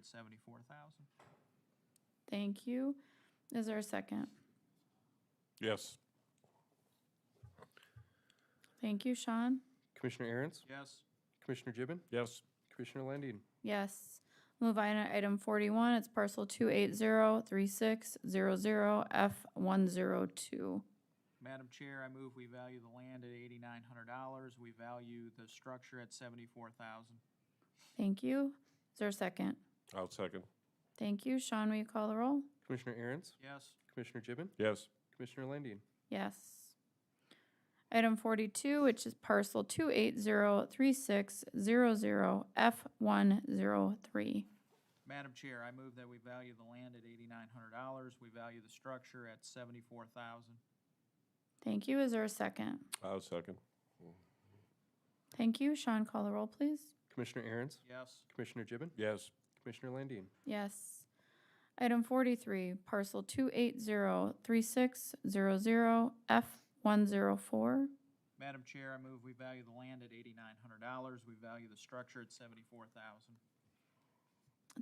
at seventy-four thousand. Thank you. Is there a second? Yes. Thank you, Sean. Commissioner Aaron's, Yes, Commissioner Gibbon, Yes. Commissioner Landine, Yes. Move on to item forty-one. It's parcel two eight zero three six zero zero F one zero two. Madam Chair, I move we value the land at eighty-nine hundred dollars. We value the structure at seventy-four thousand. Thank you. Is there a second? I'll second. Thank you. Sean, will you call the roll? Commissioner Aaron's, Yes, Commissioner Gibbon, Yes. Commissioner Landine, Yes. Item forty-two, which is parcel two eight zero three six zero zero F one zero three. Madam Chair, I move that we value the land at eighty-nine hundred dollars. We value the structure at seventy-four thousand. Thank you. Is there a second? I'll second. Thank you. Sean, call the roll, please. Commissioner Aaron's, Yes, Commissioner Gibbon, Yes. Commissioner Landine, Yes. Item forty-three, parcel two eight zero three six zero zero F one zero four. Madam Chair, I move we value the land at eighty-nine hundred dollars. We value the structure at seventy-four thousand.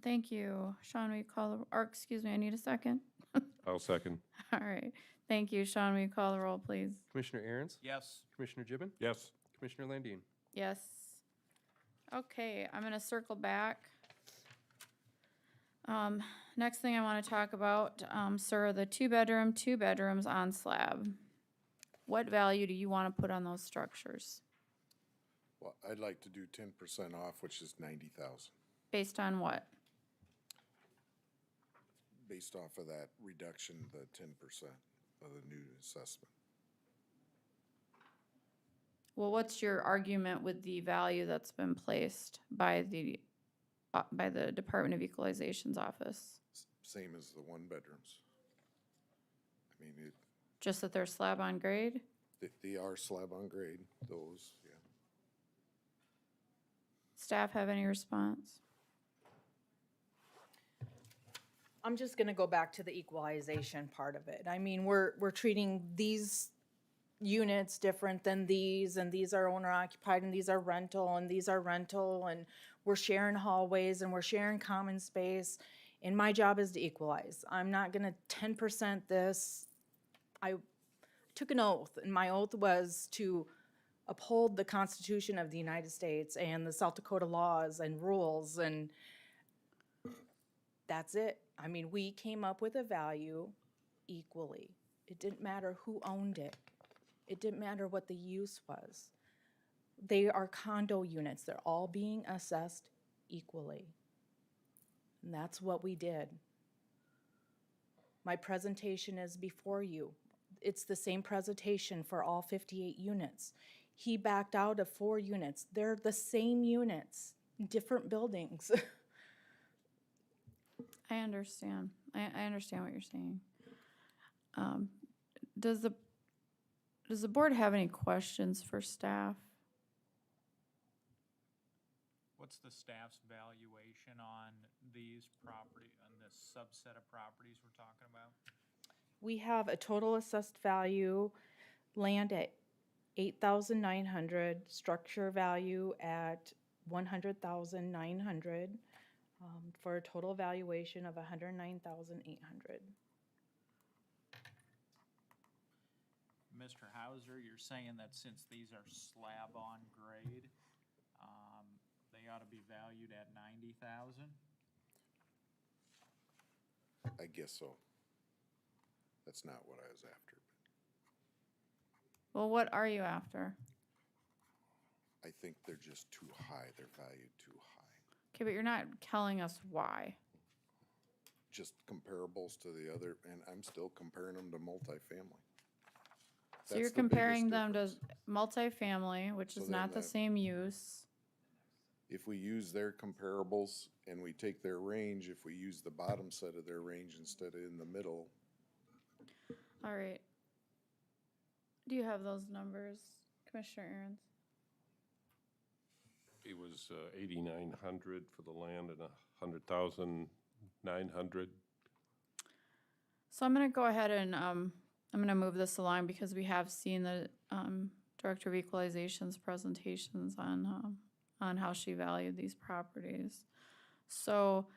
Thank you. Sean, will you call, the- or excuse me, I need a second. I'll second. All right. Thank you. Sean, will you call the roll, please? Commissioner Aaron's, Yes, Commissioner Gibbon, Yes. Commissioner Landine. Yes. Okay, I'm gonna circle back. Um, next thing I wanna talk about, um, sir, are the two-bedroom, two bedrooms on slab. What value do you wanna put on those structures? Well, I'd like to do ten percent off, which is ninety thousand, Based on what? based off of that reduction, the ten percent of the new assessment. Well, what's your argument with the value that's been placed by the, uh, by the Department of Equalization's office? S- Same as the one bedrooms. I mean, it, Just that they're slab on grade? they, they are slab on grade, those, yeah. Staff have any response? I'm just gonna go back to the equalization part of it. I mean, we're, we're treating these units different than these, and these are owner occupied, and these are rental, and these are rental, and we're sharing hallways, and we're sharing common space. And my job is to equalize. I'm not gonna ten percent this. I took an oath, and my oath was to uphold the Constitution of the United States and the South Dakota laws and rules, and that's it. I mean, we came up with a value equally. It didn't matter who owned it. It didn't matter what the use was. They are condo units. They're all being assessed equally. And that's what we did. My presentation is before you. It's the same presentation for all 58 units. He backed out of four units. They're the same units, different buildings. I understand. I, I understand what you're saying. Um, does the, does the board have any questions for staff? what's the staff's valuation on these property, on this subset of properties we're talking about? We have a total assessed value, land at eight thousand nine hundred, structure value at one hundred thousand nine hundred, um, for a total valuation of hundred nine thousand eight hundred. Mr. Hauser, you're saying that since these are slab on grade, um, they ought to be valued at ninety thousand? I guess so. That's not what I was after. Well, what are you after? I think they're just too high, they're valued too high. Okay, but you're not telling us why. Just comparables to the other, and I'm still comparing them to multifamily. So you're That's the biggest comparing them to difference. multifamily, which So is then not the that- same use. if we use their comparables and we take their range, if we use the bottom set of their range instead of in the middle, All right. Do you have those numbers, Commissioner Aaron's? It was uh, eighty-nine hundred for the land and a hundred thousand nine hundred. So I'm gonna go ahead and, um, I'm gonna move this along because we have seen the, um, Director of Equalization's presentations on, um, on how she valued these properties. So